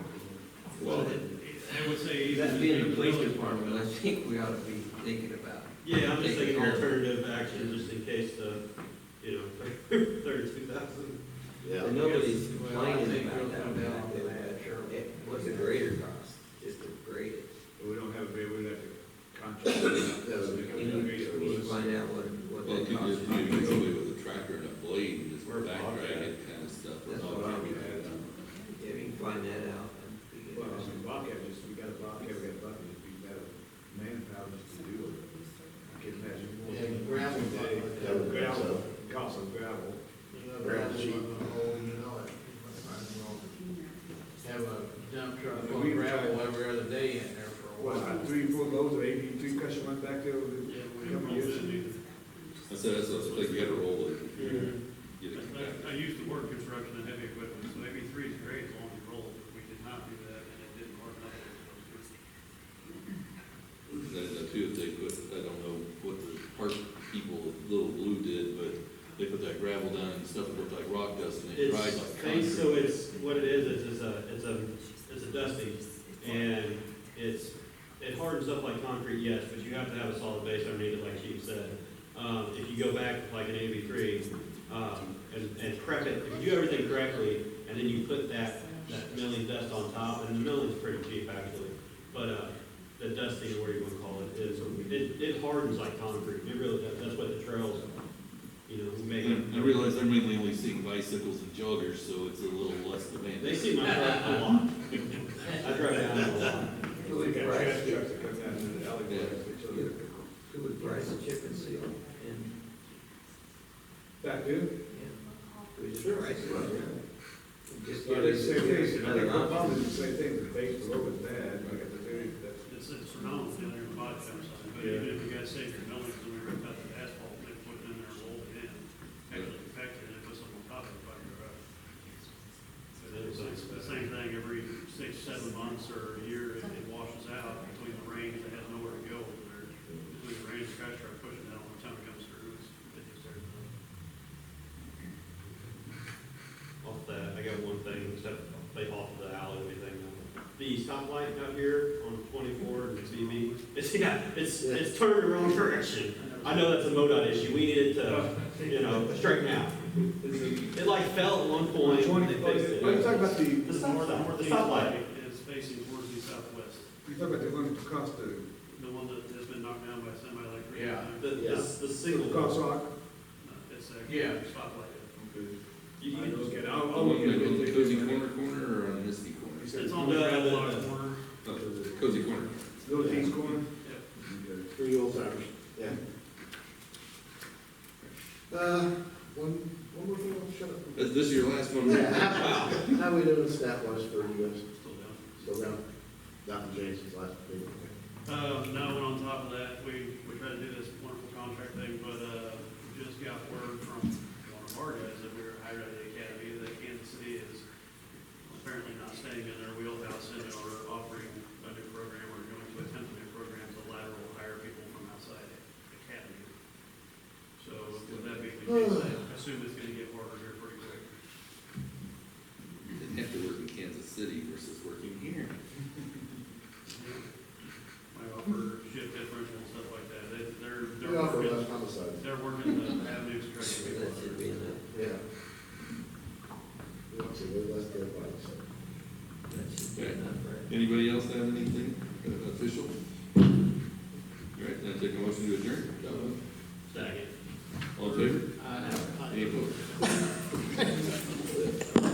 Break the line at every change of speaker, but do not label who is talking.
being the police department, I think we ought to be thinking about.
Yeah, I'm just
Taking
thinking
care of it.
alternative action, just in case the, you know, thirty-two thousand.
Yeah.
And nobody's
Well, I
complaining
think
about
we'll
that.
come down to that.
Sure. What's the greater cost, is the greatest.
We don't have, a bid, we have to contract. it out.
You need you need to find out what, what
Well, you
that
could
cost.
just, you could go
might be.
with a tractor and a blade and just
We're
back drag
bobcat.
it kind of stuff.
That's what I'm If you can find that out. that'd be good.
Well, I mean, Bobcat, just, we got a Bobcat, we got a Bobcat, it'd be better manpower just to do it. I can imagine. more.
And gravel, uh, that would be
Gravel,
something.
cost of gravel.
Gravel sheet.
Have a dump truck full
We
of
were
gravel
trying-
every other day in there for a
What,
while.
three, four loads of eighty-two cushion went back there with
Yeah,
a
we-
couple of years.
I said, that's what, like, you gotta roll it. Get it
I, I used to work construction and heavy equipment, so maybe three is great as long as you roll it, but we did not do that, and it didn't work out.
That, that too, if they put, I don't know what the park people, Little Blue did, but they put that gravel down and stuff, it looked like rock dust and it dried
It's,
like
they- so
concrete.
it's, what it is, is it's a, it's a, it's a dusting, and it's, it hardens up like concrete, yes, but you have to have a solid base underneath it, like Chief said. Um, if you go back like an AV three, um, and, and prep it, if you do everything correctly, and then you put that, that milling dust on top, and the milling's pretty cheap actually, but, uh, the dusting, or whatever you wanna call it, is, it, it hardens like concrete, it really, does. that's what the trails, you know, make.
And I realize I'm mainly only seeing bicycles and joggers, so it's a little less demanding.
They see my truck a lot. I drive down a lot.
Who
We
would
got
price,
trash trucks that come down into the alleyways, which are-
who would price a chip and seal? And,
Back there,
yeah. We just price it. yeah. Just give
Well, it's
us
the same thing, I
another
think
option.
Obama's the same thing, the base load is bad, like at the very, that's,
It's, it's phenomenal down there in body type side, but even if you guys save your millings, and we rip out the asphalt, they put it in there, and roll it in, actually pack it, and it goes on top of it, by your, uh, it's like the same thing every six, seven months or a year, it it washes out between the rains, it has nowhere to go, or between the rains, trash truck pushing it out, one time it comes through, it's, it's there.
Off that, I got one thing, except they off the alleyway thing. The stoplight out here on twenty-four and CB, it's, yeah, it's, it's turned the wrong direction. I know that's a MoDOT issue, we needed to, you know, straighten out. It like fell at one point, and they fixed it.
Are you talking about the, you
The stop sign, the
Northeast
stoplight.
light is facing towards the southwest,
talking about the one that cost the,
the one that has been knocked down by Uh, somebody like. three
Yeah.
times.
The, the, the single.
cost rock?
No, It's
Yeah.
a spotlight.
You-
I
you-
don't get it. I'll- I'll
On
look at it.
the cozy corner corner or on Misty corner?
It's on the
No,
gravel
no,
lot
no.
corner.
Oh, Cozy corner.
Little D's Corner?
Three old timers. Yeah. Uh, one, one more thing, I'll shut up.
Is this your last one? Wow.
Highway notice that was for you guys,
Still down.
so now, Dr. Jason's last thing.
Um, no, and on top of that, we, we tried to do this wonderful contract thing, but, uh, just got word from one of our guys that we were hired at the academy, that Kansas City is apparently not staying in their wheelhouse and are offering a new program, or going to attempt a new program to lateral hire people from outside the academy. So with that being the case, I assume it's gonna get harder here pretty quick.
Didn't have to work in Kansas City versus working here.
Might offer shift differential and stuff like that, they, they're,
We
they're
offer
working,
less homicide.
they're working the avenues to
So
try to.
That should be enough.
Yeah. We want to live less than five, so.
That should be enough, right?
Anybody else have anything official? All right, then I take a motion to adjourn.
Second.
All in favor?